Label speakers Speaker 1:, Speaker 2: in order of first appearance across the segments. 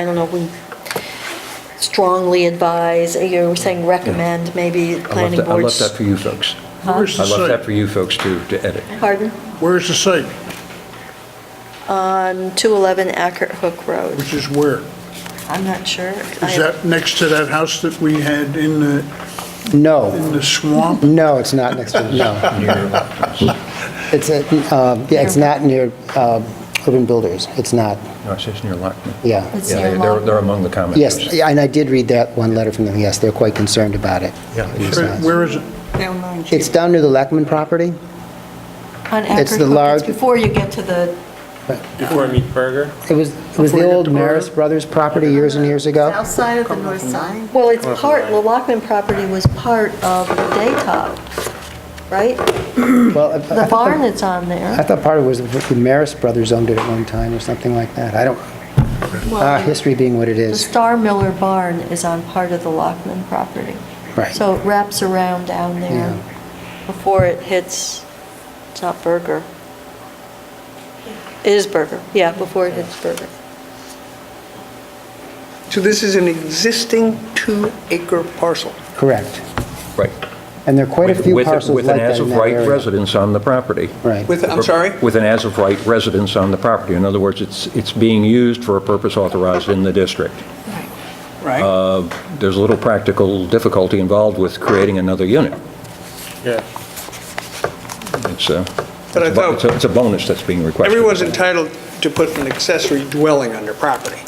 Speaker 1: I don't know, we strongly advise, you were saying recommend, maybe
Speaker 2: I left
Speaker 1: planning
Speaker 2: that- I left
Speaker 1: boards.
Speaker 2: that for you folks.
Speaker 3: Where's
Speaker 2: I
Speaker 3: the
Speaker 2: left that for
Speaker 3: site?
Speaker 2: you folks to, to edit.
Speaker 1: Pardon?
Speaker 3: Where's the site?
Speaker 1: On 211 Acker Hook Road.
Speaker 3: Which is where?
Speaker 1: I'm not sure.
Speaker 3: Is
Speaker 1: I-
Speaker 3: that next to that house that we had in the, in
Speaker 4: No,
Speaker 3: the swamp?
Speaker 4: no, it's not next to, no. It's, a- um, yeah, it's not near um, Urban Builders, it's not,
Speaker 2: No, it says near Lockton.
Speaker 4: yeah.
Speaker 5: It's near
Speaker 2: Yeah, they're,
Speaker 5: Lock-
Speaker 2: they're among the commenters.
Speaker 4: Yes, yeah, and I did read that one letter from them, yes, they're quite concerned about it.
Speaker 2: Yeah, it is.
Speaker 4: It's
Speaker 3: Where-
Speaker 4: not.
Speaker 3: Where is it?
Speaker 4: It's down near the Lackman property?
Speaker 1: On
Speaker 4: it's
Speaker 1: Acker
Speaker 4: the
Speaker 1: Hook,
Speaker 4: large-
Speaker 1: it's before you get to the,
Speaker 6: Before I meet Berger?
Speaker 4: It was, it was
Speaker 3: Before
Speaker 4: the
Speaker 3: you get
Speaker 4: old
Speaker 3: to Barber?
Speaker 4: Maris Brothers property years and years ago?
Speaker 5: South side of the north side?
Speaker 1: well, it's part, the Lockman property was part of the Daytop, right?
Speaker 4: Well, I- I
Speaker 1: The
Speaker 4: thought
Speaker 1: barn that's on
Speaker 4: I
Speaker 1: there.
Speaker 4: thought part of it was the Maris Brothers owned it at one time or something like that. I don't, ah, history being what it
Speaker 1: The
Speaker 4: is.
Speaker 1: Star Miller barn is on part of the Lockman property.
Speaker 4: Right.
Speaker 1: So it wraps around down there
Speaker 4: Yeah.
Speaker 1: before it hits, it's not Burger. It is Burger, yeah, before it hits Burger.
Speaker 7: So this is an existing two-acre parcel.
Speaker 4: Correct.
Speaker 2: Right.
Speaker 4: And there are quite a
Speaker 2: With-
Speaker 4: few
Speaker 2: with-
Speaker 4: parcels like that in
Speaker 2: With an
Speaker 4: that
Speaker 2: as-of-right
Speaker 4: area.
Speaker 2: residence on the property.
Speaker 4: Right.
Speaker 7: With, I'm sorry?
Speaker 2: With an as-of-right residence on the property. In other words, it's, it's being used for a purpose authorized in the district.
Speaker 7: Right.
Speaker 2: Uh, There's a little practical difficulty involved with creating another unit.
Speaker 6: Yeah.
Speaker 2: It's a,
Speaker 7: But
Speaker 2: it's
Speaker 7: I
Speaker 2: a bo-
Speaker 7: thought-
Speaker 2: it's a- it's a bonus that's being requested.
Speaker 7: Everyone's entitled to put an accessory dwelling on their property.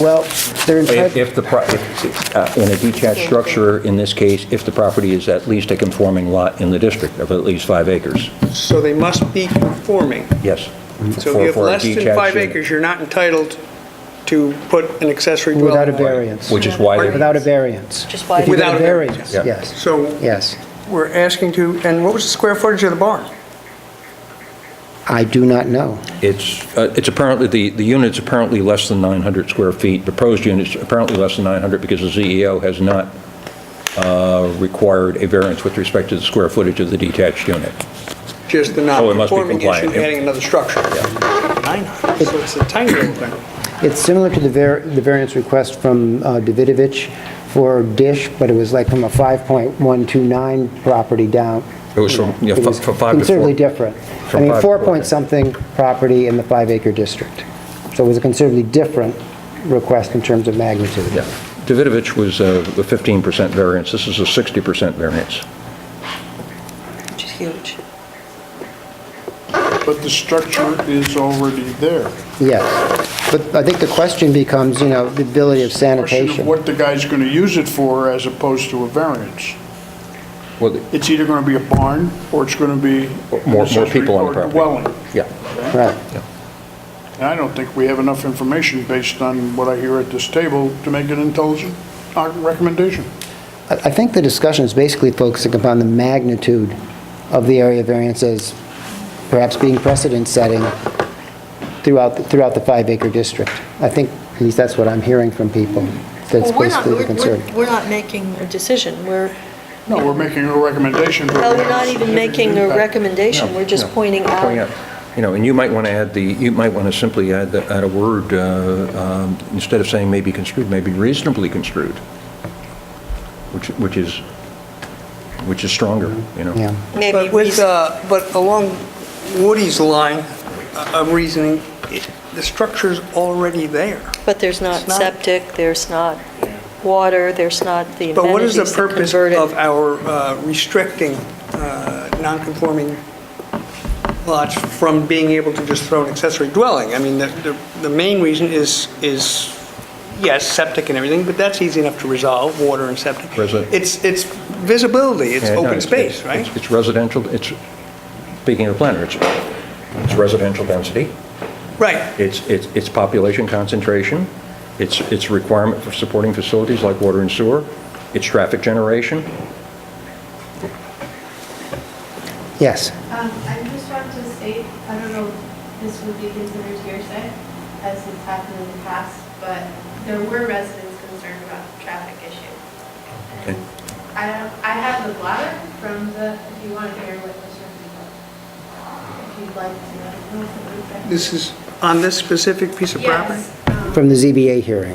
Speaker 4: Well, they're
Speaker 2: If
Speaker 4: entitled,
Speaker 2: if the, pro- if- uh, in a detached structure, in this case, if the property is at least a conforming lot in the district of at least five acres,
Speaker 7: So they must be conforming.
Speaker 2: yes.
Speaker 7: So if
Speaker 2: For-
Speaker 7: you have
Speaker 2: for a
Speaker 7: less than
Speaker 2: detached
Speaker 7: five
Speaker 2: unit,
Speaker 7: acres, you're not entitled to put an accessory dwelling.
Speaker 4: without a
Speaker 7: on it.
Speaker 4: variance.
Speaker 2: Which is why, they're-
Speaker 4: Without a variance.
Speaker 1: Just why-
Speaker 4: If you get
Speaker 7: Without a variance.
Speaker 2: Yeah.
Speaker 4: Yes,
Speaker 7: So
Speaker 4: yes.
Speaker 7: we're asking to, and what was the square footage of the barn?
Speaker 4: I do not know.
Speaker 2: it's, uh, it's apparently, the, the unit's apparently less than 900 square feet. Proposed unit's apparently less than 900 because the CEO has not uh, required a variance with respect to the square footage of the detached unit.
Speaker 7: Just the
Speaker 2: Oh, it must be
Speaker 7: non-conforming issue,
Speaker 2: compliant.
Speaker 7: adding another structure. Nine hundred, so it's a tiny little thing.
Speaker 4: It's similar to the var, the variance request from uh, Davidovich for Dish, but it was like from a 5.129 property down.
Speaker 2: It was from, yeah,
Speaker 4: It
Speaker 2: fi-
Speaker 4: was
Speaker 2: from five to
Speaker 4: Considerably
Speaker 2: four.
Speaker 4: different. I
Speaker 2: From
Speaker 4: mean,
Speaker 2: five to
Speaker 4: four
Speaker 2: four,
Speaker 4: point
Speaker 2: yeah.
Speaker 4: something property in the five-acre district. So it was a considerably different request in terms of magnitude.
Speaker 2: Yeah. Davidovich was uh, a 15% variance. This is a 60% variance.
Speaker 1: Which is huge.
Speaker 3: But the structure is already there.
Speaker 4: Yes. But I think the question becomes, you know, the ability of
Speaker 3: Question of
Speaker 4: sanitation.
Speaker 3: what the guy's going to use it for as opposed to a variance.
Speaker 2: Well, the-
Speaker 3: It's either going to be a barn or it's going to be.
Speaker 2: More- more people on the property.
Speaker 3: Dwelling.
Speaker 2: Yeah.
Speaker 4: Right.
Speaker 3: And I don't think we have enough information based on what I hear at this table to make an intelligent uh, recommendation.
Speaker 4: I I think the discussion is basically focusing upon the magnitude of the area variances, perhaps being precedent-setting throughout, the- throughout the five-acre district. I think, at least that's what I'm hearing from people. That's
Speaker 1: Well, we're not-
Speaker 4: basically the
Speaker 1: we're-
Speaker 4: concern.
Speaker 1: we're- We're not making a decision, we're,
Speaker 3: No, we're making a recommendation. but we
Speaker 1: well, Oh, we're
Speaker 3: haven't
Speaker 1: not even
Speaker 3: significant
Speaker 1: making a
Speaker 3: impact.
Speaker 1: recommendation, we're just
Speaker 2: No,
Speaker 1: pointing
Speaker 2: Pointing
Speaker 1: out.
Speaker 2: out, you know, and you might want to add the, you might want to simply add, the- add a word, uh, um, instead of saying may be construed, may be reasonably construed, which, which is, which is stronger, you know?
Speaker 4: Yeah.
Speaker 1: Maybe
Speaker 7: But with, uh, but along Woody's line uh, of reasoning, it- the structure's already there.
Speaker 1: But there's not
Speaker 7: It's not-
Speaker 1: septic, there's not water, there's not the amenities
Speaker 7: But what is the
Speaker 1: that
Speaker 7: purpose
Speaker 1: convert it.
Speaker 7: of our uh, restricting uh, non-conforming lots from being able to just throw an accessory dwelling? I mean, the, the- the main reason is, is, yes, septic and everything, but that's easy enough to resolve, water and septic.
Speaker 2: Resi-
Speaker 7: It's, it's visibility, it's
Speaker 2: Yeah, no,
Speaker 7: open space,
Speaker 2: uh, it's-
Speaker 7: right?
Speaker 2: It's residential, it's, speaking of planner, it's, it's residential density,
Speaker 7: Right.
Speaker 2: it's, it's it's population concentration, it's, it's requirement for supporting facilities like water and sewer, it's traffic generation,
Speaker 4: Yes.
Speaker 8: Um, I just want to state, I don't know if this would be considered hearsay, as it's happened in the past, but there were residents concerned about the traffic issue. And I don't, I have the blotter from the, if you want to hear what was said, if you'd like to know.
Speaker 7: This is on this specific piece of property?
Speaker 8: Yes, um,
Speaker 4: from the ZBA hearing.